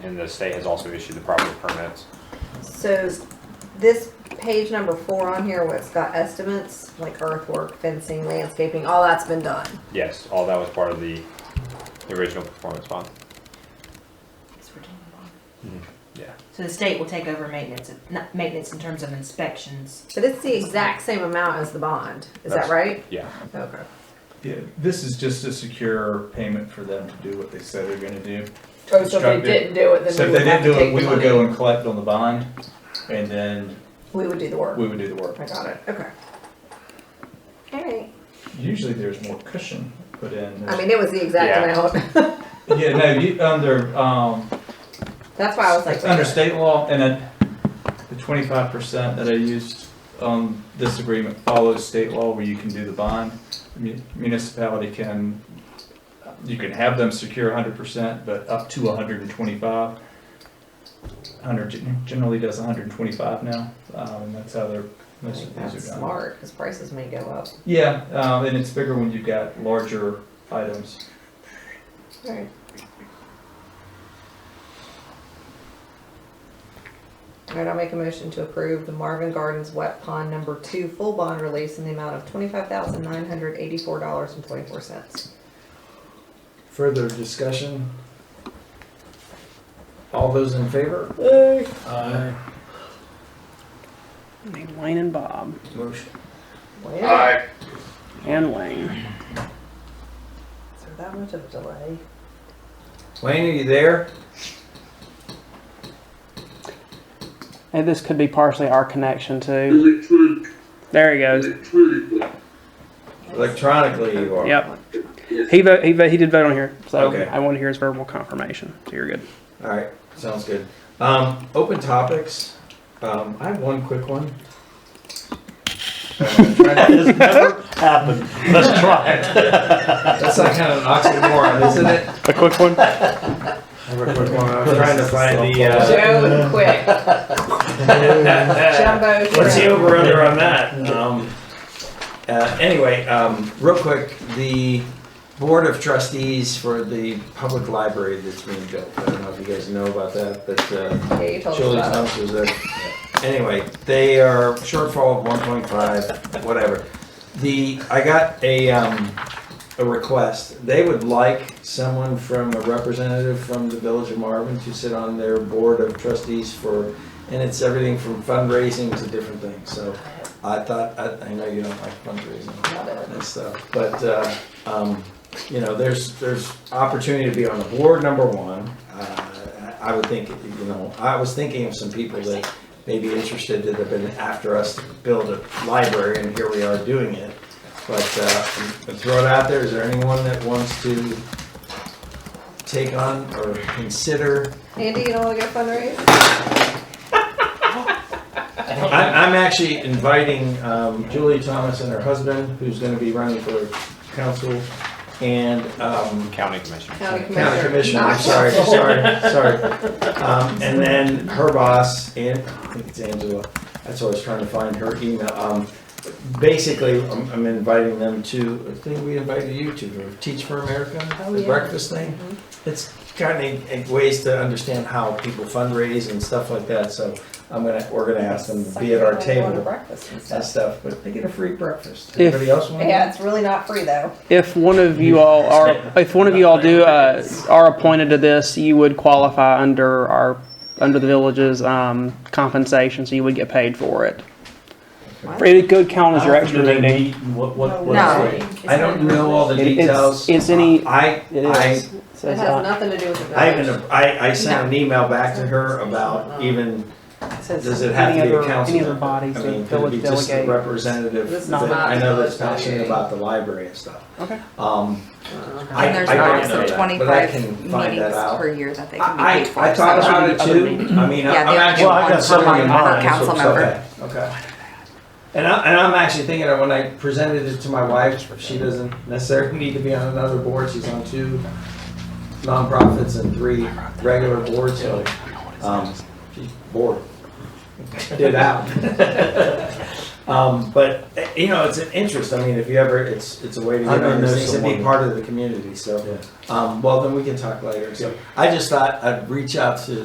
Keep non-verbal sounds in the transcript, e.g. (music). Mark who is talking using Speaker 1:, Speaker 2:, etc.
Speaker 1: And the state has also issued the proper permits.
Speaker 2: So this page number four on here, where it's got estimates, like earthwork, fencing, landscaping, all that's been done.
Speaker 1: Yes, all that was part of the the original performance bond.
Speaker 3: It's Virginia law.
Speaker 1: Yeah.
Speaker 3: So the state will take over maintenance, not maintenance in terms of inspections.
Speaker 2: But it's the exact same amount as the bond, is that
Speaker 1: That's-
Speaker 2: right?
Speaker 1: Yeah.
Speaker 2: Okay.
Speaker 4: Yeah, this is just a secure payment for them to do what they said they're gonna do.
Speaker 5: Oh, so if
Speaker 4: Constructive.
Speaker 5: they didn't do it,
Speaker 4: So
Speaker 5: then
Speaker 4: if
Speaker 5: we
Speaker 4: they
Speaker 5: would have to
Speaker 4: didn't do it,
Speaker 5: take
Speaker 4: we
Speaker 5: the
Speaker 4: would
Speaker 5: money.
Speaker 4: go and collect on the bond, and then
Speaker 2: We would do the work.
Speaker 4: we would do the
Speaker 5: Oh
Speaker 4: work.
Speaker 2: I got it, okay. All right.
Speaker 4: Usually there's more cushion put in.
Speaker 2: I mean, it was the exact
Speaker 1: Yeah.
Speaker 2: amount. (laughs)
Speaker 4: Yeah, no, you, under, um,
Speaker 2: That's why I was like.
Speaker 4: it's under state law, and then the twenty-five percent that I used on this agreement follows state law where you can do the bond. Mu- Municipality can, you can have them secure hundred percent, but up to hundred and twenty-five. Hundred gen- generally does hundred and twenty-five now, um, and that's how they're,
Speaker 2: I
Speaker 4: most
Speaker 2: think
Speaker 4: of these
Speaker 2: That's
Speaker 4: are done.
Speaker 2: smart, because prices may go up.
Speaker 4: Yeah, um, and it's bigger when you've got larger items.
Speaker 2: All right. All right, I'll make a motion to approve the Marvin Gardens Wet Pond Number Two full bond release in the amount of twenty-five thousand nine hundred eighty-four dollars and twenty-four cents.
Speaker 6: Further discussion? All those in favor? Aye.
Speaker 7: Named Wayne and Bob
Speaker 6: Motion.
Speaker 2: Wow,
Speaker 7: and Wayne.
Speaker 2: so that much of a delay.
Speaker 6: Wayne, are you there?
Speaker 7: And this could be partially our connection too. There he goes.
Speaker 6: Electronically you are.
Speaker 7: Yep. He vote, he vote, he did vote on here, so
Speaker 6: Okay.
Speaker 7: I want to hear his verbal confirmation. So you're good.
Speaker 6: All right, sounds good. Um, open topics. Um, I have one quick one. I'm trying to-
Speaker 8: It's never happened. Let's try it.
Speaker 6: That's like kind of an oxymoron, isn't it?
Speaker 7: A quick one.
Speaker 6: I'm trying to find the, uh,
Speaker 5: Joe,
Speaker 6: (laughs)
Speaker 5: quick,
Speaker 2: Jumbo
Speaker 6: What's the
Speaker 2: shrimp.
Speaker 6: over under on that? Um, uh, anyway, um, real quick, the board of trustees for the public library that's being built. I don't know if you guys know about that, but uh,
Speaker 2: Yeah, you told us
Speaker 6: Children's
Speaker 2: about it.
Speaker 6: House was there. Anyway, they are shortfall of one point five, whatever. The I got a um, a request. They would like someone from a representative from the village of Marvin to sit on their board of trustees for and it's everything from fundraising to different things. So I thought, I, I know you don't like fundraising
Speaker 2: Not it.
Speaker 6: and stuff, but, uh, um, you know, there's, there's opportunity to be on the board, number one. Uh, I I would think, you know, I was thinking of some people that may be interested that have been after us to build a library and here we are doing it. But, uh, I'll throw it out there, is there anyone that wants to take on or consider
Speaker 2: Andy, you don't wanna go fundraise?
Speaker 6: I'm, I'm actually inviting um, Julie Thomas and her husband, who's going to be running for council, and um,
Speaker 1: County commission.
Speaker 2: County commissioner.
Speaker 6: county commissioner.
Speaker 2: Not
Speaker 6: Sorry,
Speaker 2: council.
Speaker 6: sorry, sorry. Um, and then her boss, and I think it's Angela. That's what I was trying to find her email. Um, basically, I'm, I'm inviting them to. I think we invited you to Teach for America,
Speaker 2: Oh,
Speaker 6: the
Speaker 2: yeah.
Speaker 6: breakfast thing. It's kind of ways to understand how people fundraise and stuff like that. So I'm gonna we're gonna ask them to be at our
Speaker 2: Some people go to
Speaker 6: table
Speaker 2: Breakfast and
Speaker 6: that
Speaker 2: stuff.
Speaker 6: stuff, but they get a free breakfast.
Speaker 7: If-
Speaker 6: Anybody else want?
Speaker 2: Yeah, it's really not free though.
Speaker 7: If one of you all are, if one of you all do uh, are appointed to this, you would qualify under our under the village's um, compensation, so you would get paid for it. It could count as your extra
Speaker 8: Do they
Speaker 7: meeting.
Speaker 8: meet and what, what, what?
Speaker 2: No.
Speaker 8: is it?
Speaker 6: I don't know all the
Speaker 7: It-
Speaker 6: details.
Speaker 7: it's, it's any.
Speaker 6: I,
Speaker 7: It
Speaker 6: I,
Speaker 7: is. So
Speaker 2: It
Speaker 7: it's
Speaker 2: has
Speaker 7: not-
Speaker 2: nothing to do with the village.
Speaker 6: I even, I, I sent an email back to her about even, does it have to
Speaker 7: any
Speaker 6: be a
Speaker 7: other-
Speaker 6: council
Speaker 7: Any
Speaker 6: member?
Speaker 7: other bodies
Speaker 6: I
Speaker 7: that
Speaker 6: mean, could it
Speaker 7: village
Speaker 6: be just a
Speaker 7: delegate?
Speaker 6: representative?
Speaker 2: This is
Speaker 6: that-
Speaker 2: not
Speaker 6: I know that's
Speaker 2: the village
Speaker 6: passionate
Speaker 2: delegate.
Speaker 6: about the library and stuff.
Speaker 7: Okay.
Speaker 6: Um, I,
Speaker 9: And there's
Speaker 6: I don't know
Speaker 9: also
Speaker 6: that, but I
Speaker 9: twenty-five
Speaker 6: can find that
Speaker 9: meetings
Speaker 6: out.
Speaker 9: per year that they can be
Speaker 6: I,
Speaker 9: paid for.
Speaker 6: I, I thought
Speaker 9: so-
Speaker 6: about it too, I mean,
Speaker 9: Yeah,
Speaker 6: I'm
Speaker 9: the
Speaker 6: actually.
Speaker 9: actual
Speaker 8: Well, I got
Speaker 9: ones
Speaker 8: some
Speaker 9: per
Speaker 8: in
Speaker 9: per
Speaker 8: mind,
Speaker 9: council
Speaker 6: So- so-
Speaker 9: member.
Speaker 6: Okay. And I, and I'm actually thinking that when I presented it to my wife, she doesn't necessarily need to be on another board, she's on two nonprofits and three regular boards, so, um, she's bored. Did out. (laughs) Um, but eh, you know, it's an interest. I mean, if you ever, it's it's a way to
Speaker 8: I
Speaker 6: get
Speaker 8: don't
Speaker 6: on
Speaker 8: know
Speaker 6: things and be
Speaker 8: someone.
Speaker 6: part of the community. So,
Speaker 8: Yeah.
Speaker 6: um, well, then we can talk later. So, I just thought I'd reach out to